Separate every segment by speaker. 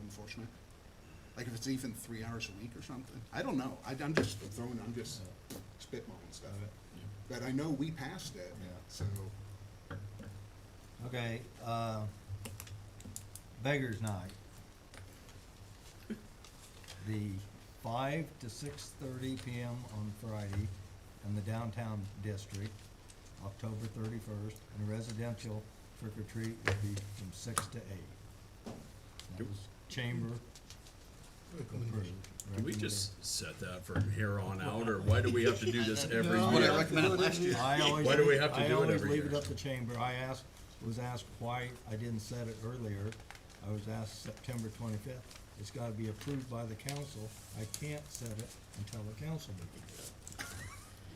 Speaker 1: unfortunate. Like if it's even three hours a week or something. I don't know. I, I'm just throwing, I'm just spitballing stuff. But I know we passed it,
Speaker 2: Yeah.
Speaker 1: so,
Speaker 2: Okay, uh, Beggar's Night. The five to six thirty PM on Friday in the downtown district, October thirty-first, and residential trick or treat will be from six to eight. That was chamber.
Speaker 3: Can we just set that from here on out, or why do we have to do this every
Speaker 4: No.
Speaker 1: what I
Speaker 3: year?
Speaker 1: recommended last year.
Speaker 2: I always,
Speaker 3: Why do we have to
Speaker 2: I
Speaker 3: do it
Speaker 2: always
Speaker 3: every
Speaker 2: leave it
Speaker 3: year?
Speaker 2: up to chamber. I asked, was asked why I didn't set it earlier. I was asked September twenty-fifth. It's gotta be approved by the council. I can't set it until the council meeting.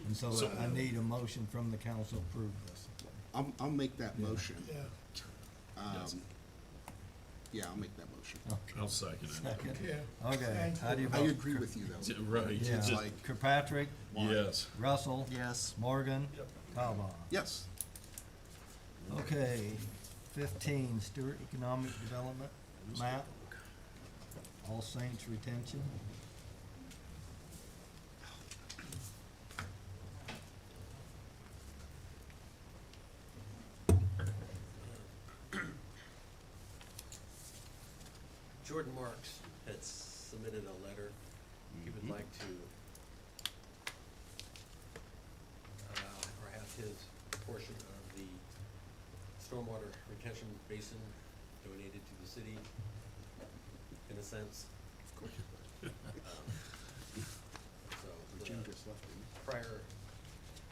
Speaker 2: And so
Speaker 3: So-
Speaker 2: I need a motion from the council to approve this.
Speaker 1: I'll, I'll make that motion.
Speaker 4: Yeah,
Speaker 3: Yes.
Speaker 1: Um, yeah, I'll make that motion.
Speaker 3: I'll second it.
Speaker 2: Second.
Speaker 4: yeah.
Speaker 2: Oh, Okay, how do you
Speaker 1: I
Speaker 2: vote?
Speaker 1: agree with you though.
Speaker 3: T- Right,
Speaker 2: Yeah,
Speaker 3: just-
Speaker 1: like-
Speaker 2: Kirkpatrick,
Speaker 3: yes.
Speaker 2: Russell,
Speaker 5: Yes.
Speaker 2: Morgan, Calvo.
Speaker 1: Yes,
Speaker 2: Okay, fifteen, Stewart Economic Development map, All Saints retention.
Speaker 5: Jordan Marks had submitted a letter. He
Speaker 1: Mm-hmm.
Speaker 5: would like to allow uh, or have his portion of the stormwater retention basin donated to the city, in a sense. Um,
Speaker 1: of course.
Speaker 5: So uh,
Speaker 1: But Jim
Speaker 5: the
Speaker 1: just left, didn't he?
Speaker 5: prior,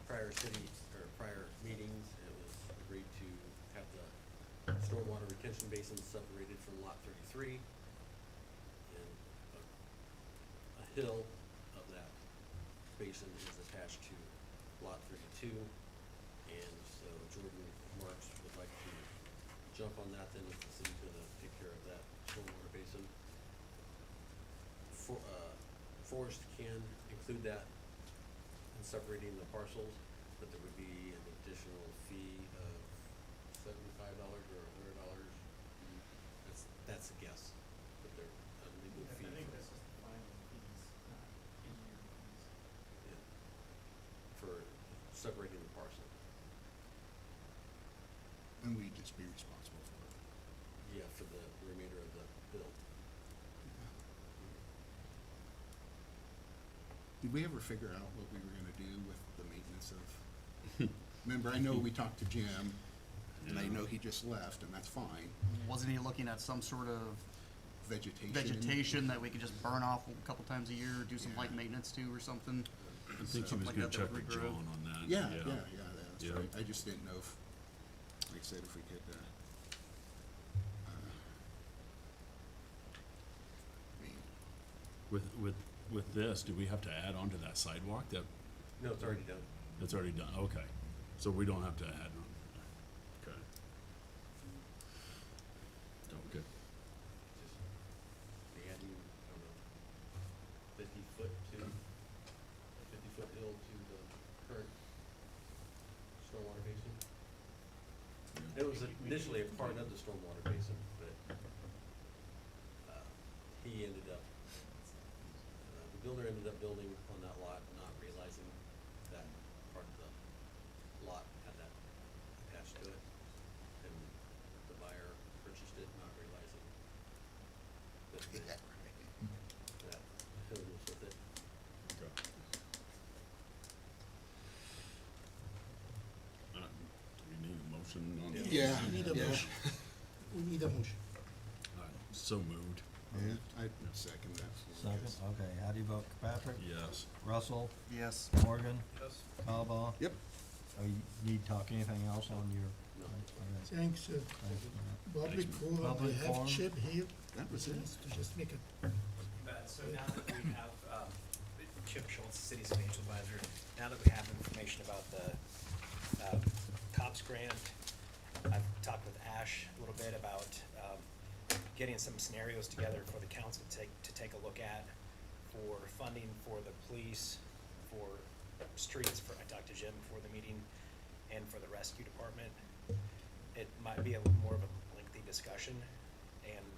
Speaker 5: prior city, or prior meetings, it was agreed to have the stormwater retention basin separated from lot thirty-three. And a, a hill of that basin is attached to lot thirty-two. And so Jordan Marks would like to jump on that then if the city's gonna take care of that stormwater basin. For, uh, Forest can include that in separating the parcels, but there would be an additional fee of seventy-five dollars or a hundred dollars. That's, that's a guess, but there, a legal
Speaker 6: I
Speaker 5: fee.
Speaker 6: think
Speaker 5: for-
Speaker 6: that's just the filing fees, not engineering fees.
Speaker 5: yeah, for separating the parcel.
Speaker 1: And we just be responsible for it.
Speaker 5: Yeah, for the remainder of the bill.
Speaker 1: Did we ever figure out what we were gonna do with the maintenance of? Remember, I know we talked to Jim, and I know he just left, and that's fine,
Speaker 4: Wasn't he looking at some sort of
Speaker 1: vegetation.
Speaker 4: vegetation that we could just burn off a couple times a year, do some light maintenance to or something?
Speaker 3: I think she
Speaker 4: Something
Speaker 3: was
Speaker 4: like
Speaker 3: gonna
Speaker 4: that that
Speaker 3: check
Speaker 4: would
Speaker 3: with
Speaker 4: regrow.
Speaker 3: John on that.
Speaker 1: Yeah, yeah, yeah, that's
Speaker 3: Yeah.
Speaker 1: right, I just didn't know if, like I said, if we could, uh, uh, I mean,
Speaker 3: With, with, with this, do we have to add on to that sidewalk that,
Speaker 5: No, it's already done.
Speaker 3: that's already done? Okay, so we don't have to add on. Okay. Okay.
Speaker 5: Just, they added, I don't know, fifty foot to, fifty foot hill to the current stormwater basin. It was initially a part of the stormwater basin, but, uh, he ended up, uh, the builder ended up building on that lot, not realizing that part of the lot had that attached to it. And the buyer purchased it, not realizing that the- that hill was with it.
Speaker 3: Uh, Do we need a motion on this?
Speaker 1: Yeah,
Speaker 4: You need a
Speaker 1: yeah,
Speaker 4: motion. We need a motion.
Speaker 3: I'm So moved,
Speaker 1: yeah, I second that.
Speaker 2: Second, okay, how do you vote, Kirkpatrick,
Speaker 3: yes.
Speaker 2: Russell,
Speaker 4: Yes.
Speaker 2: Morgan, Calvo?
Speaker 1: Yep.
Speaker 2: Oh, you need to talk anything else on your?
Speaker 5: No.
Speaker 2: okay,
Speaker 7: Thanks, uh,
Speaker 2: thanks for that.
Speaker 7: public forum,
Speaker 2: Public
Speaker 7: I have
Speaker 2: forum.
Speaker 7: Chip here,
Speaker 1: That was it.
Speaker 7: just to just make a,
Speaker 6: But, so now that we have, um, Chip Schultz, city's financial advisor, now that we have information about the, uh, COPS grant, I've talked with Ash a little bit about, um, getting some scenarios together for the council to take, to take a look at for funding for the police, for streets, for, I talked to Jim before the meeting, and for the rescue department. It might be a little more of a lengthy discussion, and